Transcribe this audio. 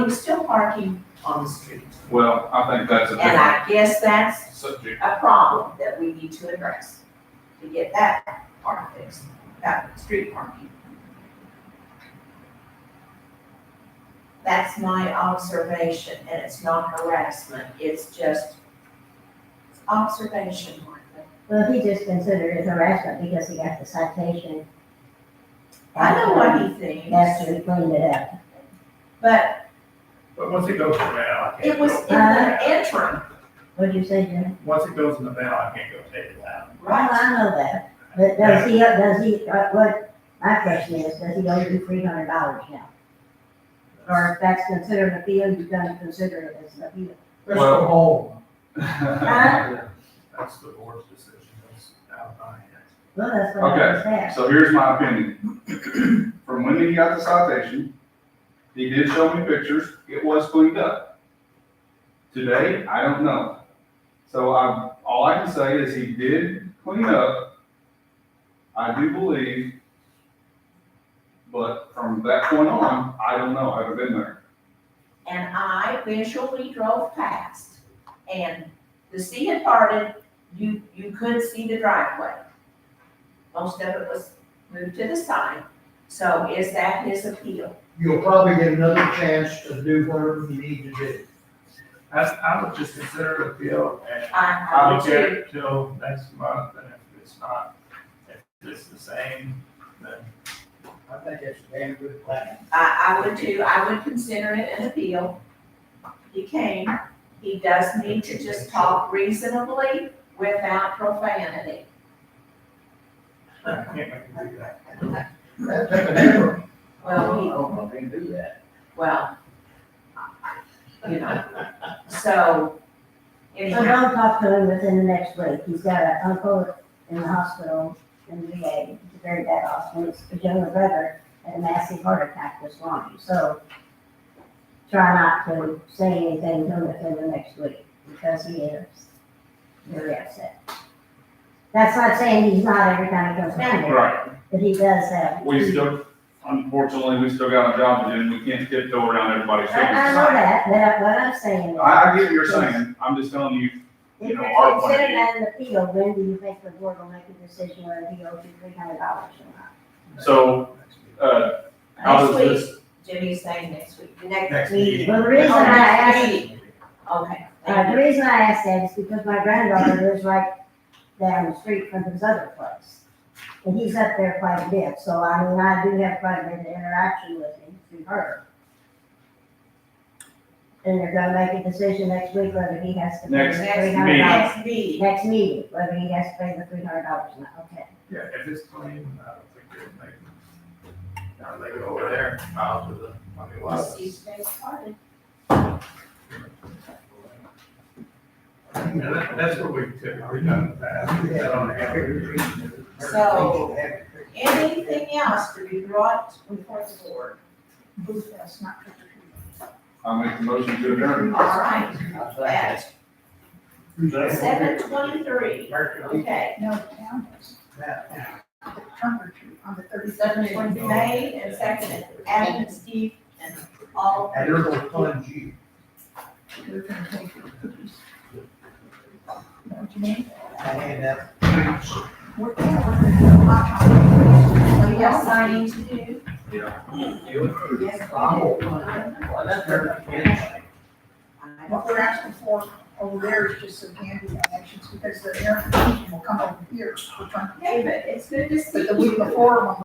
He was still parking on the street. Well, I think that's a And different I guess that's subject. a problem that we need to address, to get that part fixed, that street parking. That's my observation, and it's not harassment, it's just observation, Martha. Well, he just considered it harassment because he got the citation. I know what he thinks, After he cleaned it up. but But once it goes in the mail, I can't. it was go in take the it interim, What'd you say, Jim? out. Once it goes in the mail, I can't go take it out. Well, right? I know that, but does he, does he, uh, what, my question is, does he owe you three hundred dollars now? Or if that's considered an appeal, you gotta consider it as an appeal. That's the Well- whole. Huh? That's the board's decision, that's out of my hands. Well, that's what I was saying. So here's my opinion. From when he got the citation, he did show me pictures, it was cleaned up. Today, I don't know. So I, all I can say is he did clean up. I do believe. But from that point on, I don't know, I haven't been there. and I visually drove past. And the sea had parted, you, you could see the driveway. Most of it was moved to the side, so is that his appeal? you'll probably get another chance to do whatever you need to do. That's, I would just consider it appeal and I, I I'll would get too, it till next month, and if it's not, if it's the same, then I think that's a damn good plan. I, I would too, I would consider it an appeal. He came, he does need to just talk reasonably without profanity. I can't make it do that. That took an effort. Well, he Oh, I didn't do that. Well, you know, so, So anyhow, don't talk to him within the next week. He's got an uncle in the hospital in the VA, It's a very bad hospital. His younger brother had a massive heart attack this morning, so try not to say anything to him within the next week because he is very upset. That's not saying he's not every time he comes down here, Right. but he does have. We still, unfortunately, we still got a job to do and we can't tiptoe around everybody's I, feelings. I know that, but what I'm saying is. I, I get what you're saying, I'm just telling you, If you you know, our point of consider that an appeal, when do you think the board will make a decision whether he owes you three hundred dollars or not? so, uh, how next does week, this, Jimmy's saying next week, the next. Next We- meeting. Well, the reason I asked, Okay, uh, thank the you. reason I asked that is because my granddaughter lives right down the street from his other place. And he's up there quite a bit, so I mean, I do have quite a bit of interaction with him through her. And they're gonna make a decision next week whether he has to pay the Next three hundred meeting. dollars. Next meeting, Next meeting, whether he has to pay the three hundred dollars or not, okay. Yeah, if it's clean, I don't think they'll make it. Now they go over there, out to the, I mean, why? Just use today's party. And that- that's what we typically done in the past, we had on every. So- Anything else to be brought before the board? I make the motion to adjourn. All right, at seven That's- twenty-three, okay. No, the town is, Now, the temperature on the Seven thirty-seven twenty, twenty. made and seconded, Adam and Steve and all, And they're gonna plunge you. What you mean? I hand out We're, yeah, we're gonna do a hot topic. we have signing to do. Yes. Oh. What we're asking for over there is just some handy actions because the air conditioning will come over here. We're trying to- David, it's good to see you. But the week before, when